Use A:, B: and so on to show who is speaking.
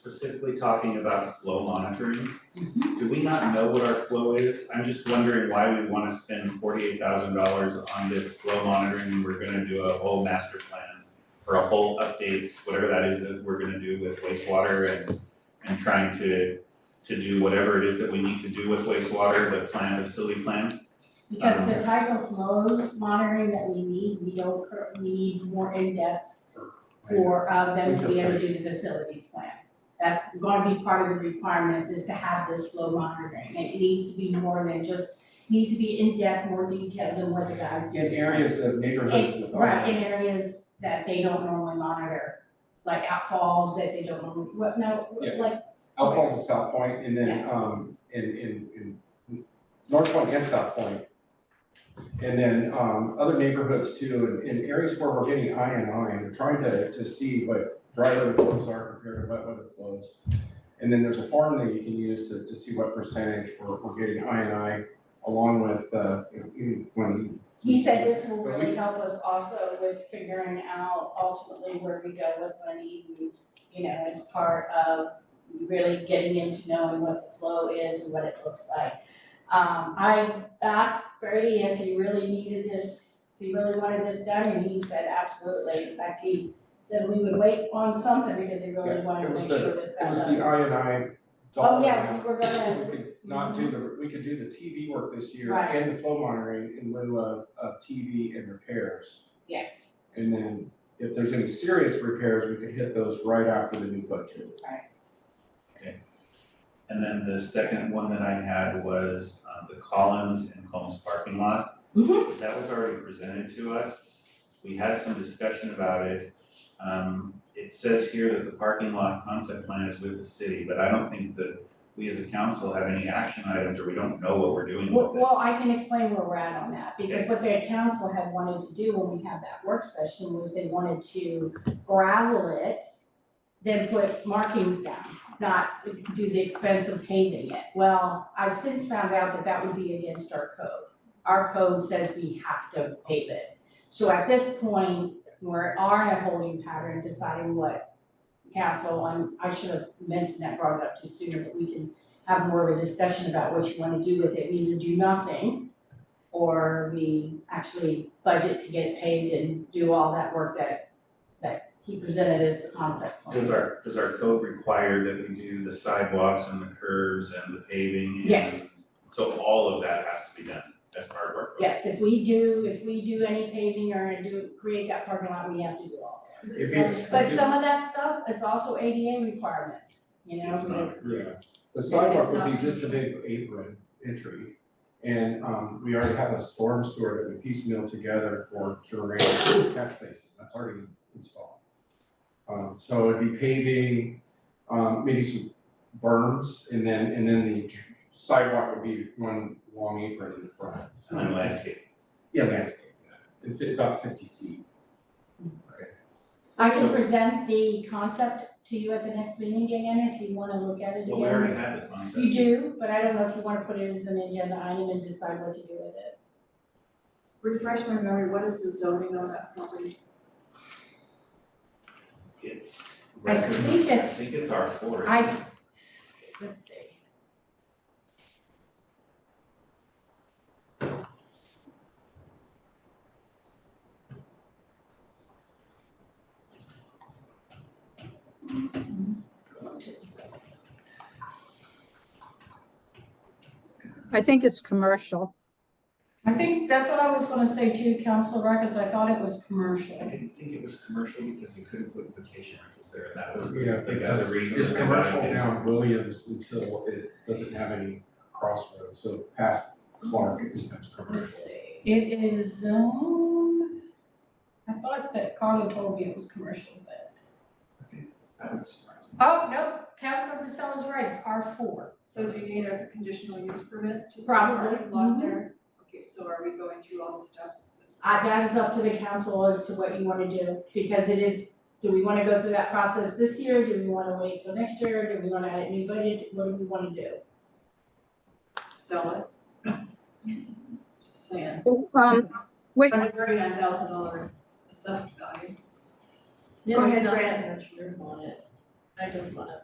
A: specifically talking about flow monitoring. Do we not know what our flow is? I'm just wondering why we wanna spend forty-eight thousand dollars on this flow monitoring, when we're gonna do a whole master plan. Or a whole update, whatever that is that we're gonna do with wastewater and, and trying to, to do whatever it is that we need to do with wastewater, the plan, the facility plan.
B: Um,
C: Because the type of flow monitoring that we need, we don't, cur- we need more in-depth for uh them to be able to do the facilities plan. That's gonna be part of the requirements is to have this flow monitoring, and it needs to be more than just, needs to be in-depth, more detailed than what the guys do.
B: In areas of neighborhoods
C: It's
B: with.
C: right, in areas that they don't normally monitor, like outfalls that they don't, normally- what, no,
B: Yeah.
C: like,
B: Outfalls of South Point and then, um, in, in, in North Point and South Point. And then, um, other neighborhoods too, in, in areas where we're getting I and I, we're trying to, to see what dry weather flows are compared to wet weather flows. And then there's a form that you can use to, to see what percentage we're, we're getting I and I along with, uh, you know, even when.
C: he said this will
B: But we-
C: really help us also with figuring out ultimately where we go with money. and, You know, as part of really getting into knowing what the flow is and what it looks like. Um, I asked Brady if he really needed this, if he really wanted this done, and he said absolutely. In fact, he said we would wait on something because he really
B: Yeah,
C: wanted
B: it
C: to
B: was
C: make
B: the-
C: sure this
B: It
C: got
B: was
C: done.
B: the I and I.
C: Uh, Oh, yeah, we were gonna,
B: We could not do the, we could do the TV work this year
C: Right.
B: and the flow monitoring in lieu of, of TV and repairs.
C: yes,
B: And then if there's any serious repairs, we could hit those right after the new budget.
A: And then the second one that I had was, uh, the Collins and Combs parking lot.
C: Mm-hmm.
A: That was already presented to us, we had some discussion about it. Um, it says here that the parking lot concept plan is with the city, but I don't think that we as a council have any action items, or we don't know what we're doing
C: well,
A: with this.
C: well, I can explain where we're at on that, because what the council had wanted to do when we had that work session was they wanted to gravel it, then put markings down, not do the expense of paving it. Well, I've since found out that that would be against our code. Our code says we have to pave it. So at this point, we're are in a holding pattern deciding what council, and I should have mentioned that, brought it up just sooner, but we can have more of a discussion about what you wanna do with it, We either do nothing or we actually budget to get it paved and do all that work that that he presented as the concept plan.
A: Does our, does our code require that we do the sidewalks and the curves and the paving and?
C: Yes.
A: So all of that has to be done as part of our. code.
C: Yes, if we do, if we do any paving or do, create that parking lot, we have to do all that.
B: If you-
C: But some of that stuff is also ADA requirements, you know,
A: It's not.
B: Yeah, the
C: It's
B: sidewalk
C: not-
B: would be just a big apron entry. And, um, we already have a storm sewer that we piecemeal together for drainage and catch basin, that's already installed. Um, so it'd be paving, um, maybe some berms, and then, and then the sidewalk would be one long apron in the front.
A: And then landscape.
B: Yeah, landscape, yeah, it'd fit about fifty feet.
C: I can present the concept to you at the next meeting again, if you wanna look at it again.
A: Well, we already had the concept.
C: You do, but I don't know if you wanna put it as an agenda item and decide what to do with it.
D: Refresh my memory, what is the zoning on that property?
A: It's.
C: I
A: resident-
C: think it's-
A: I think it's R four.
C: I, let's see.
E: I think it's commercial.
C: I think that's what I was gonna say too, Council Records, I thought it was
A: I
C: commercial.
A: didn't think it was commercial because you couldn't put vacation rentals there, and that was the
B: Yeah,
A: the other reason.
B: It's
A: that I
B: commercial
A: didn't-
B: now in Williams until it doesn't have any crossroads, so past Clark, it becomes
C: Let's
B: commercial.
C: see, it is zone, I thought that Carla told me it was commercial, but.
A: That would surprise me.
C: Oh, no, Council Priscilla's right, it's R four.
D: So do you need a conditional use permit to the
C: Probably,
D: parking lot there? Okay, so are we going through all the steps?
C: Uh, that is up to the council as to what you wanna do, because it is, do we wanna go through that process this year, do we wanna wait till next year, do we wanna add a new budget, what do we wanna do?
D: Sell it? Just saying,
E: Um, wait,
D: hundred thirty-nine thousand dollar assessed value.
E: Go ahead,
F: There's not
C: Brad.
F: that much room on it. I don't wanna